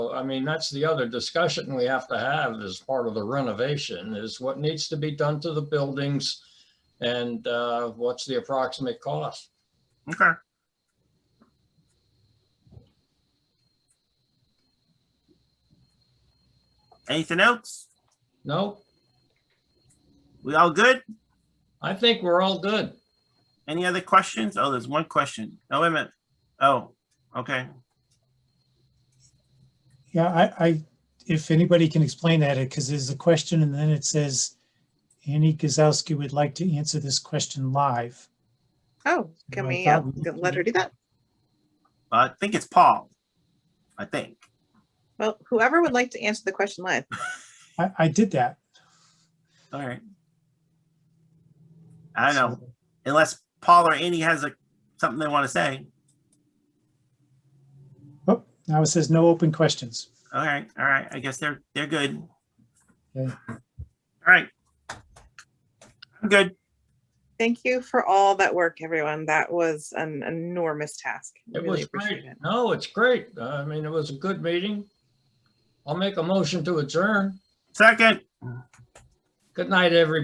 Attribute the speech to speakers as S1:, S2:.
S1: So, I mean, that's the other discussion we have to have as part of the renovation is what needs to be done to the buildings and uh, what's the approximate cost?
S2: Okay. Anything else?
S1: No,
S2: We all good?
S1: I think we're all good.
S2: Any other questions? Oh, there's one question. Oh, wait a minute. Oh, okay.
S3: Yeah, I, I, if anybody can explain that, because there's a question and then it says, Annie Gazowski would like to answer this question live.
S4: Oh, can
S3: I
S4: we uh,
S3: thought we
S4: get-
S3: could
S4: let her do that?
S2: I think it's Paul. I think.
S4: Well, whoever would like to answer the question live.
S3: I, I did that.
S2: All right. I don't know, unless Paul or Annie has a, something they want to say.
S3: Oh, now it says no open questions.
S2: All right, all right. I guess they're, they're good. All
S3: Okay.
S2: right. I'm good.
S4: Thank you for all that work, everyone. That was an enormous task. I
S1: It
S4: Really
S1: was
S4: appreciate
S1: great.
S4: it.
S1: No, it's great. I mean, it was a good meeting. I'll make a motion to adjourn.
S2: Second.
S1: Good night, everybody.